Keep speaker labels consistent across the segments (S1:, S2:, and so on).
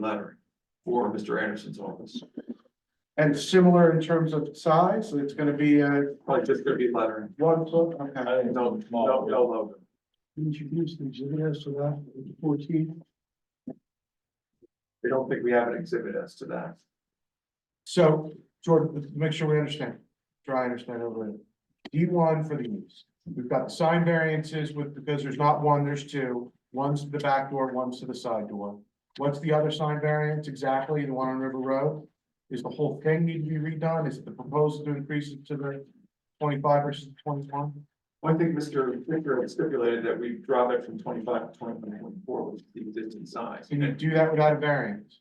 S1: letter for Mr. Anderson's office.
S2: And similar in terms of size, it's gonna be a
S1: Probably just gonna be lettering.
S2: one foot, okay.
S1: No, no, no logo.
S2: Introduce the exhibit as to that, fourteen.
S1: We don't think we have an exhibit as to that.
S2: So, Jordan, make sure we understand, try and understand over D one for the use. We've got the sign variances with, because there's not one, there's two. One's to the back door, one's to the side door. What's the other sign variance exactly, the one on River Road? Is the whole thing need to be redone? Is it the proposal to increase it to the twenty-five versus twenty-one?
S1: One thing Mr. Ficker had stipulated that we drop it from twenty-five to twenty-one point four, which is the existing size.
S2: Can you do that without a variance?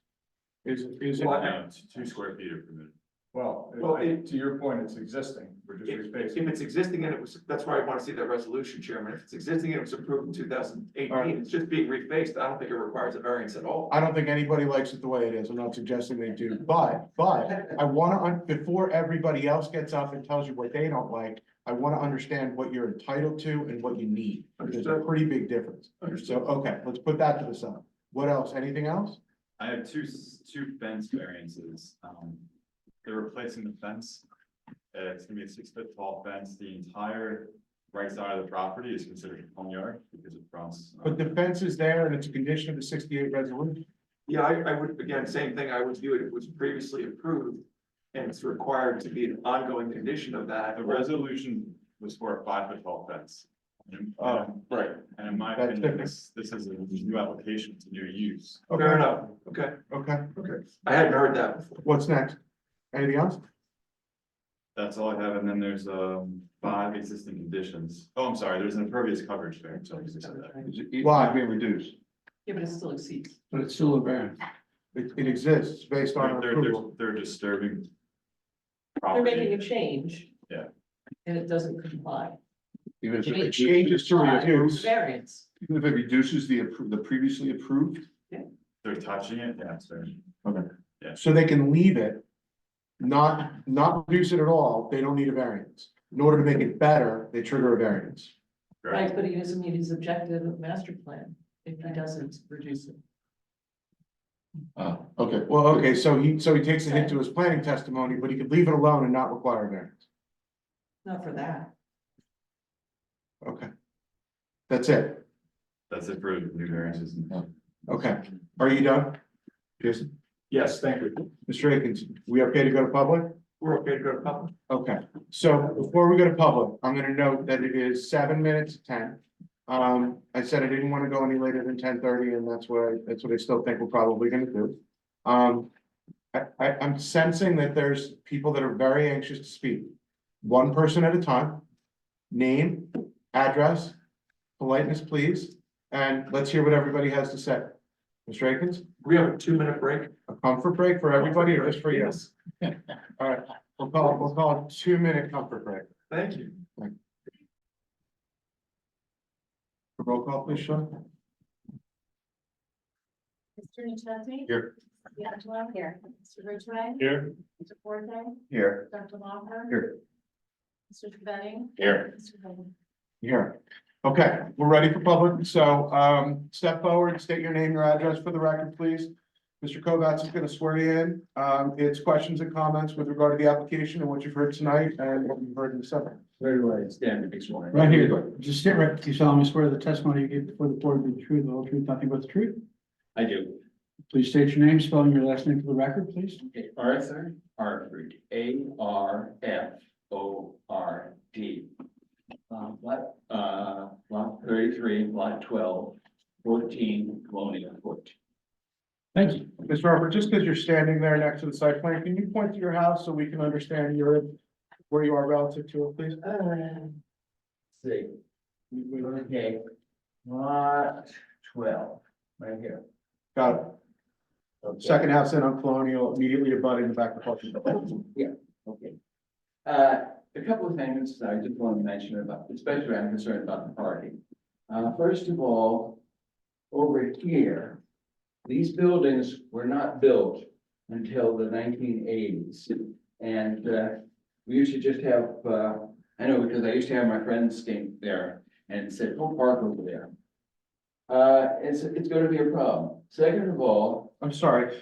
S2: Is, is it,
S1: Well,
S3: No, it's Um, two square feet of permitted.
S4: Well,
S1: Well,
S4: I-
S1: it-
S4: to your point, it's existing, we're just
S1: If
S4: replacing.
S1: if it's existing and it was, that's why I want to see that resolution, Chairman. If it's existing and it was approved in two thousand
S2: Alright.
S1: eighteen, it's just being refaced. I don't think it requires a variance at all.
S2: I don't think anybody likes it the way it is, I'm not suggesting they do, but, but I wanna, un- before everybody else gets up and tells you what they don't like, I wanna understand what you're entitled to and what you need, there's a
S1: Understood.
S2: pretty big difference. So,
S1: Understood.
S2: okay, let's put that to the side. What else, anything else?
S3: I have two, s- two fence variances. Um, they're replacing the fence. Uh, it's gonna be a six foot tall fence. The entire right side of the property is considered a home yard because it fronts. uh,
S2: But the fence is there and it's a condition of the sixty-eight resolution,
S1: Yeah, I, I would, again, same thing. I would view it, it was previously approved. And it's required to be an ongoing condition of that.
S3: The resolution was for a five foot tall fence. And- um,
S2: Oh,
S1: right.
S3: And in my
S2: That's
S3: opinion,
S2: different.
S3: this, this is a new application, it's a new use.
S1: Fair enough. Okay,
S2: okay,
S1: okay. I hadn't heard that before.
S2: what's next? Anything else?
S3: That's all I have. And then there's, um, five existing conditions. Oh, I'm sorry, there's an impervious coverage variance. I just said that.
S2: Why? Being reduced.
S5: Yeah, but it still exceeds.
S2: But it's still a variance. It, it exists based on
S3: They're, they're,
S2: approval.
S3: they're disturbing.
S5: They're making
S3: property.
S5: a change.
S3: Oh, Yeah.
S5: And it doesn't comply.
S6: Even if
S5: It
S6: it
S5: is-
S2: Changes to
S5: Comply,
S2: reduce.
S5: Variance.
S6: even if it reduces the, appro- the previously approved,
S3: They're touching it, yeah, sorry.
S2: So they can leave it. Not, not reduce it at all, they don't need a variance. In order to make it better, they trigger a variance.
S5: Right, but he doesn't meet his objective of master plan if he doesn't reduce it.
S6: uh, okay,
S2: Well, okay, so he, so he takes a hit to his planning testimony, but he could leave it alone and not require a variance.
S5: Not for that.
S2: Okay. That's it.
S3: That's it for new variances.
S2: Okay. Are you done? Jason,
S1: Yes, thank you.
S2: Mr. Akins, we okay to go to public?
S1: We're okay to go to public.
S2: Okay, so before we go to public, I'm gonna note that it is seven minutes to ten. Um, I said I didn't wanna go any later than ten thirty, and that's what, I that's what I still think we're probably gonna do. Um, I, I, I'm sensing that there's people that are very anxious to speak, one person at a time. Name, address, politeness, please, and let's hear what everybody has to say. Mr. Akins,
S1: We have a two-minute break.
S2: a comfort break for everybody or just for you?
S1: Yes.
S2: All right, we'll call, we'll call a two-minute comfort break.
S1: Thank you.
S2: Roll call, please, Sean.
S7: Mr. Nuchesny?
S2: Here.
S7: Mr. D'Angelo? Here. Mr. Ridgway?
S2: Here.
S7: Mr. Forte?
S6: here,
S7: Dr. Lawler?
S6: Here.
S7: Mr. Trevette?
S6: Here.
S7: Mr. Bowman?
S2: Here. Okay, we're ready for public. So um, step forward, state your name, your address for the record, please. Mr. Kovats is going to swear you in. Um, It's questions and comments with regard to the application and what you've heard tonight and what you've heard in the summer.
S8: Very right. Right
S2: Right
S8: here,
S2: here.
S8: just sit right, you solemnly swear the testimony you give before the board will be the truth, the whole truth, nothing but the truth.
S9: I do.
S8: Please state your name, spelling your last name for the record, please.
S9: Okay, Arthur Harford, A R F O R D. Um, lot, uh, lot thirty-three, lot 12, 14, Colonial Court.
S8: Thank you.
S2: Mr. Harper, just because you're standing there next to the site plan, can you point to your house so we can understand your, where you are relative to it, please?
S9: Let's See. Okay, lot twelve, right here.
S2: Got it.
S9: Okay.
S2: Second house in on Colonial, immediately abutting the back of the house.
S9: Okay. Uh, a couple of things I just want to mention about, especially I'm concerned about the parking. Uh, first of all, over here, these buildings were not built until the nineteen eighties. And, uh, we used to just have, uh, I know because I used to have my friends came there and said, oh, park over there. Uh, it's, it's gonna be a problem. Second of all,
S2: I'm sorry,